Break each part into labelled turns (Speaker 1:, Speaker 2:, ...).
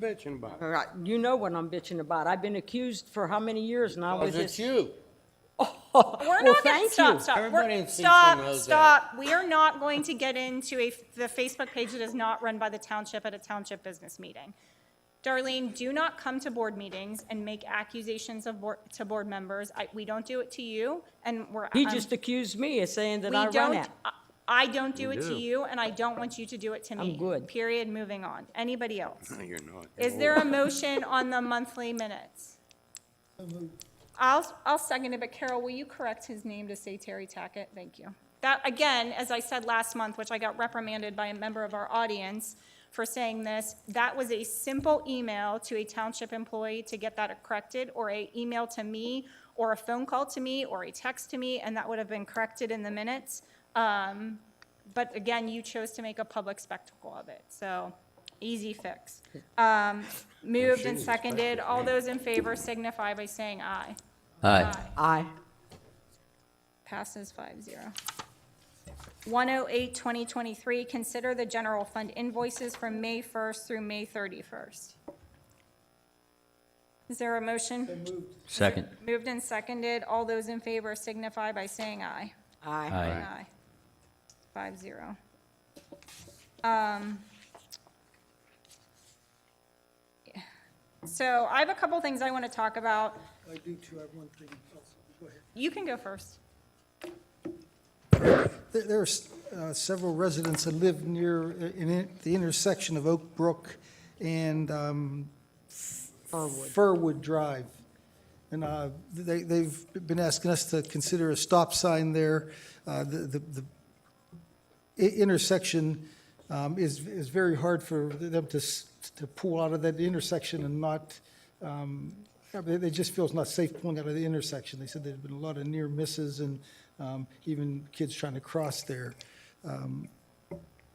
Speaker 1: bitching about?
Speaker 2: Uh-huh.
Speaker 3: All right, you know what I'm bitching about. I've been accused for how many years now with
Speaker 1: Because it's
Speaker 3: this?
Speaker 1: you.
Speaker 3: Well,
Speaker 2: We're not
Speaker 3: thank
Speaker 2: going to, stop,
Speaker 3: you.
Speaker 2: stop. We're-
Speaker 1: Everybody in Cecil
Speaker 2: Stop,
Speaker 1: knows
Speaker 2: stop. We are not going to get into a, the Facebook page that is not run by the township at a township business meeting. Darlene, do not come to board meetings and make accusations of, board- to board members. I, we don't do it to you, and we're.
Speaker 3: He
Speaker 2: I'm-
Speaker 3: just accused me of saying that
Speaker 2: we
Speaker 3: I run
Speaker 2: don't-
Speaker 3: it.
Speaker 2: I- I don't do it to you, and I don't want you to do it to me.
Speaker 3: good.
Speaker 2: Period, moving on. Anybody else?
Speaker 1: No, you're not.
Speaker 2: Is there a motion on the monthly minutes? I'll, I'll second it, but Carol, will you correct his name to say Terry Tackett? Thank you. That, again, as I said last month, which I got reprimanded by a member of our audience for saying this, that was a simple email to a township employee to get that corrected, or a email to me, or a phone call to me, or a text to me, and that would have been corrected in the minutes. Um, But again, you chose to make a public spectacle of it, so easy fix. Um, Moved and seconded, all those in favor signify by saying aye.
Speaker 4: Aye.
Speaker 3: I,
Speaker 2: Passes five zero. 108, 2023, consider the general fund invoices from May 1st through May 31st. Is there a motion?
Speaker 4: Second.
Speaker 2: Moved and seconded, all those in favor signify by saying aye.
Speaker 3: I,
Speaker 4: Aye.
Speaker 2: Aye. Five zero. Um. So I have a couple things I want to talk about.
Speaker 5: I do too, I have one thing else, go ahead.
Speaker 2: You can go first.
Speaker 5: There- There are s- uh, several residents that live near, uh, in it- the intersection of Oak Brook and um,
Speaker 3: Irwood.
Speaker 5: Furwood Drive. And uh, they, they've been asking us to consider a stop sign there. Uh, The, the the i- intersection um, is, is very hard for them to, s- to pull out of that intersection and not, um, yeah, they, they just feel it's not safe pulling out of the intersection. They said there's been a lot of near misses and um, even kids trying to cross there. Um,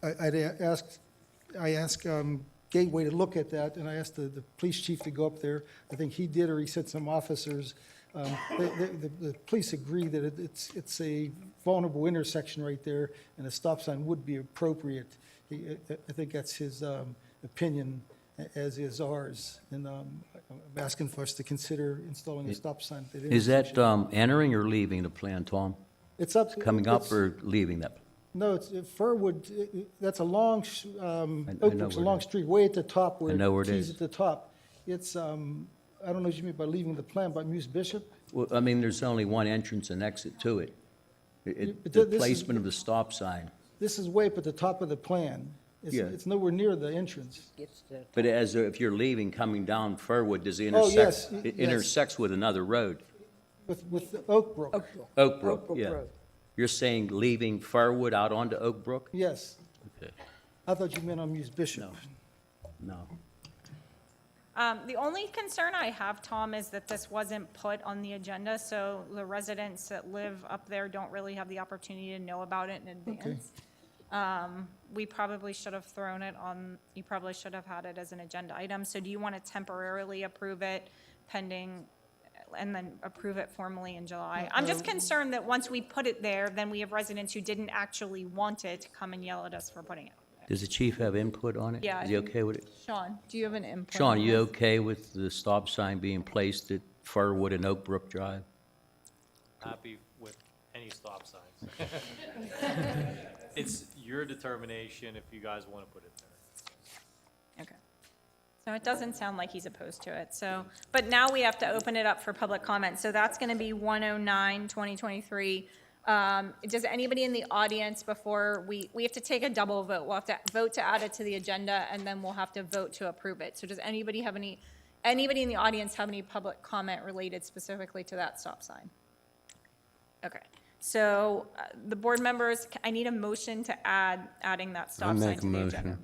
Speaker 5: I, I'd a- asked, I asked um, Gateway to look at that, and I asked the, the police chief to go up there. I think he did, or he sent some officers. Um, The, the- the- the police agree that it- it's, it's a vulnerable intersection right there, and a stop sign would be appropriate. He- I I think that's his um, opinion, a- as is ours. And um, I'm asking for us to consider installing a stop sign at that
Speaker 4: Is that
Speaker 5: intersection.
Speaker 4: um, entering or leaving the plan, Tom?
Speaker 5: It's up,
Speaker 4: Coming up
Speaker 5: it's-
Speaker 4: or leaving that?
Speaker 5: No, it's uh, Furwood, uh, uh, that's a long, sh- um,
Speaker 4: I- I
Speaker 5: Oak
Speaker 4: know
Speaker 5: Brook's a
Speaker 4: where it
Speaker 5: long
Speaker 4: is.
Speaker 5: street, way at the top where.
Speaker 4: I know where it is.
Speaker 5: tees at the top. It's, um, I don't know what you mean by leaving the plan, by Muse Bishop?
Speaker 4: Well, I mean, there's only one entrance and exit to it. It- it-
Speaker 5: But
Speaker 4: The
Speaker 5: th- this is-
Speaker 4: placement of the stop sign.
Speaker 5: This is way up at the top of the plan. It's-
Speaker 4: Yeah.
Speaker 5: It's nowhere near the entrance.
Speaker 4: But as, if you're leaving, coming down Furwood, does it
Speaker 5: Oh,
Speaker 4: intersect?
Speaker 5: yes, y-
Speaker 4: It
Speaker 5: yes.
Speaker 4: intersects with another road,
Speaker 5: With, with Oak Brook,
Speaker 4: Oak Brook,
Speaker 3: Brook
Speaker 4: yeah.
Speaker 3: Road.
Speaker 4: You're saying leaving Furwood out onto Oak Brook?
Speaker 5: yes.
Speaker 4: Okay.
Speaker 5: I thought you meant on Muse Bishop.
Speaker 4: No.
Speaker 2: Um, the only concern I have, Tom, is that this wasn't put on the agenda, so the residents that live up there don't really have the opportunity to know about it in advance. Um, we probably should have thrown it on, you probably should have had it as an agenda item, so do you want to temporarily approve it pending, and then approve it formally in July? I'm just concerned that once we put it there, then we have residents who didn't actually want it to come and yell at us for putting it.
Speaker 4: Does the chief have input on it?
Speaker 2: Yeah, I
Speaker 4: Is he
Speaker 2: think-
Speaker 4: okay with it?
Speaker 2: Sean, do you have an input?
Speaker 4: Sean,
Speaker 2: on
Speaker 4: you
Speaker 2: this?
Speaker 4: okay with the stop sign being placed at Furwood and Oak Brook Drive?
Speaker 6: happy with any stop signs. It's your determination if you guys want to put it there.
Speaker 2: Okay. So it doesn't sound like he's opposed to it, so, but now we have to open it up for public comment, so that's gonna be 109, 2023. Um, does anybody in the audience before, we, we have to take a double vote, we'll have to vote to add it to the agenda, and then we'll have to vote to approve it. So does anybody have any, anybody in the audience have any public comment related specifically to that stop sign? Okay, so, uh, the board members, I need a motion to add, adding that stop sign
Speaker 1: make
Speaker 2: to
Speaker 1: a
Speaker 2: the
Speaker 1: motion.
Speaker 2: agenda.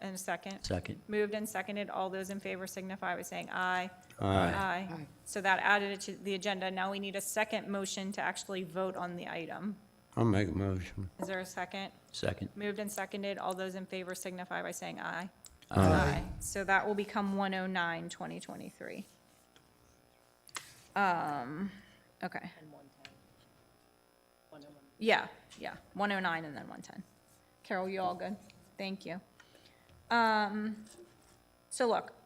Speaker 2: And a second?
Speaker 4: Second.
Speaker 2: Moved and seconded. All those in favor signify by saying aye.
Speaker 1: Aye.
Speaker 2: Aye. So that added it to the agenda. Now we need a second motion to actually vote on the item.
Speaker 1: I'll make a motion.
Speaker 2: Is there a second?
Speaker 4: Second.
Speaker 2: Moved and seconded. All those in favor signify by saying aye. Aye. So that will become 109, 2023. Um, okay. Yeah, yeah, 109 and then 110. Carol, you all good? Thank you. Um, so look,